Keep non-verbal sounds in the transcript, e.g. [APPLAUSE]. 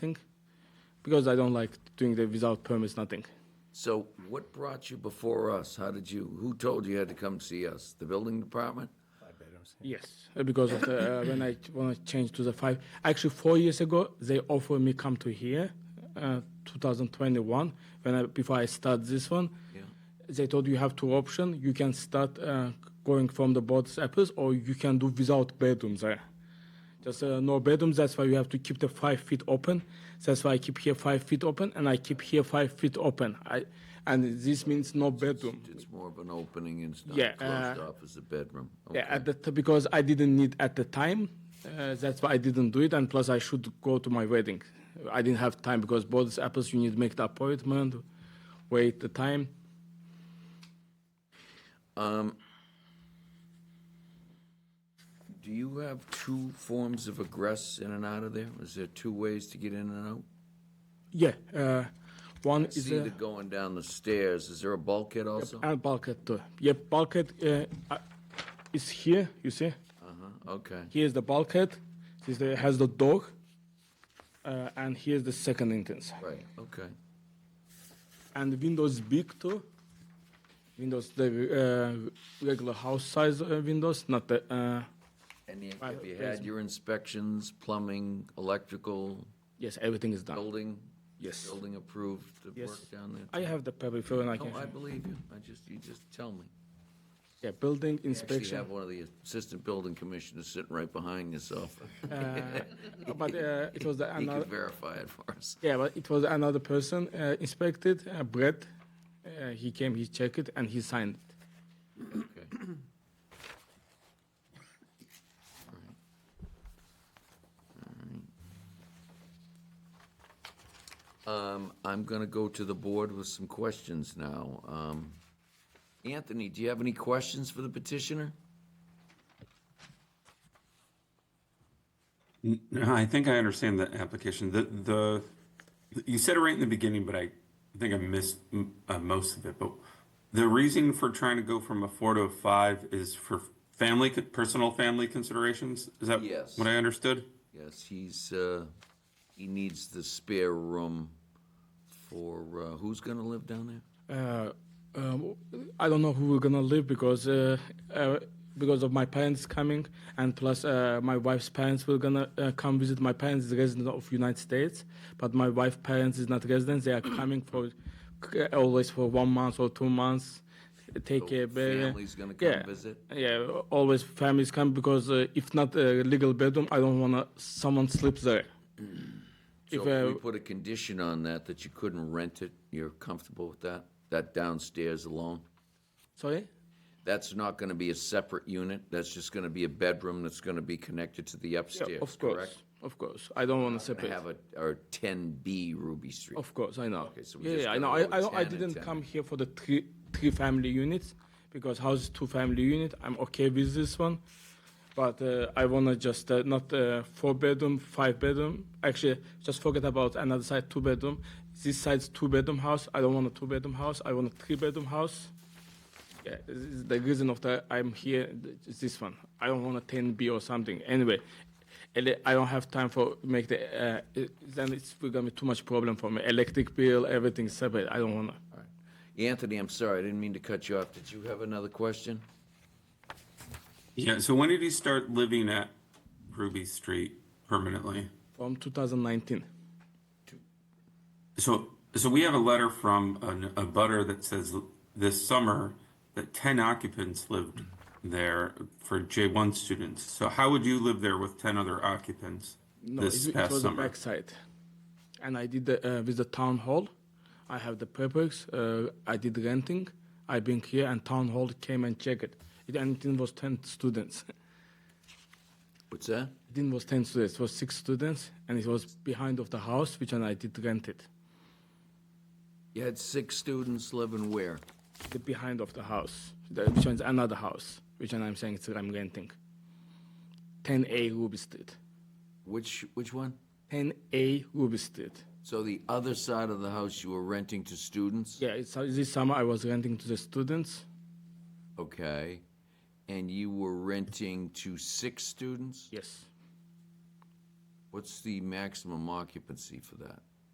thing, because I don't like doing the without permits, nothing. So what brought you before us? How did you, who told you you had to come see us? The building department? Yes, uh, because of the, uh, [COUGHS] when I when I changed to the five, actually four years ago they offered me come to here, uh, 2021. When I, before I start this one, they told you have two options. You can start uh, going from the board's apples, or you can do without bedrooms there. Just uh, no bedrooms. That's why you have to keep the five feet open. That's why I keep here five feet open, and I keep here five feet open. I, and this means no bedroom. It's more of an opening and it's not Yeah, closed uh, off as a bedroom. Yeah, Okay. at the t- because I didn't need at the time. Uh, that's why I didn't do it, and plus I should go to my wedding. I didn't have time because both apples you need to make the appointment, wait the time. Do you have two forms of egress in and out of there? Is there two ways to get in and out? Yeah, uh, one It's is either a, going down the stairs. Is there a bulkhead also? Uh and bulkhead too. Yeah, bulkhead uh, uh, is here. You see, huh. Uh-huh, Okay. here's the bulkhead. This the, has the dog, uh, and here's the second entrance. Right. Okay. and Windows big too. Windows the uh, regular house size uh, windows, not the. Uh, And you- Right, have you had your inspections, plumbing, electrical, yes, everything is done. building? Yes. Building approved to Yes. work down there? I have the paper for and I can. No, I believe you. I just, you just tell me. yeah, building Actually, you inspection. have one of the assistant building commissioners sitting right behind yourself. Uh, but uh, it was the He could another. verify it for us. Yeah, but it was another person uh, inspected. Uh, Brett, uh, he came, he checked it, and he signed it. Okay. Um, I'm gonna go to the board with some questions now. Um, Anthony, do you have any questions for the petitioner? Uh, I think I understand the application. The, the, you said it right in the beginning, but I think I missed mm, uh, most of it. But the reason for trying to go from a four to a five is for family, co- personal family considerations? Is that Yes. what I understood? Yes, he's, uh, he needs the spare room for, uh, who's gonna live down there? uh, um, I don't know who we're gonna live because uh, uh, because of my parents coming, and plus uh, my wife's parents will gonna uh, come visit. My parents is resident of United States, but my wife's parents is not resident. [CLEARS THROAT] They are coming for uh, always for one month or two months. Take So a baby. family's gonna come yeah. visit? Yeah, always families come because uh, if not a legal bedroom, I don't wanna someone sleeps there. So If, if we uh, put a condition on that, that you couldn't rent it, you're comfortable with that? That downstairs alone? Sorry. That's not gonna be a separate unit, that's just gonna be a bedroom that's gonna be connected to the Yeah, upstairs, of course, correct? of course. I don't wanna Gonna separate. Have a, or ten B Ruby Street. Of course, I know. Okay, so we yeah, just yeah, I know. gotta I, I, go with don't- I 10 and didn't 10. come here for the three three family units because house is two family unit. I'm okay with this one, but uh, I wanna just uh, not uh, four bedroom, five bedroom. Actually, just forget about another side two bedroom. This side's two bedroom house. I don't want a two bedroom house. I want a three bedroom house. Yeah, this is the reason of that I'm here th- is this one. I don't want a 10B or something. Anyway, ele- I don't have time for make the. Uh, it, then it's gonna be too much problem for me. Electric bill, everything separate. I don't wanna. All right. Anthony, I'm sorry, I didn't mean to cut you off, did you have another question? Yeah, so when did you start living at Ruby Street permanently? From 2019. So, so we have a letter from an, a butter that says this summer that ten occupants lived there for J one students. So how would you live there with ten other occupants No, this it, it past was the summer? backside, and I did the, uh, with the town hall. I have the papers. Uh, I did renting. I been here, and town hall came and checked it. It and it was 10 students. What's that? Dean was 10 students, it was six students, and it was behind of the house, which and I did rent it. You had six students living where? The behind of the house, the, which one's another house, which one I'm saying it's, I'm renting. 10A Ruby Street. Which, which one? 10A Ruby Street. So the other side of the house you were renting to students? Yeah, it's, this summer I was renting to the students. Okay. And you were renting to six students? Yes. What's the maximum occupancy for that?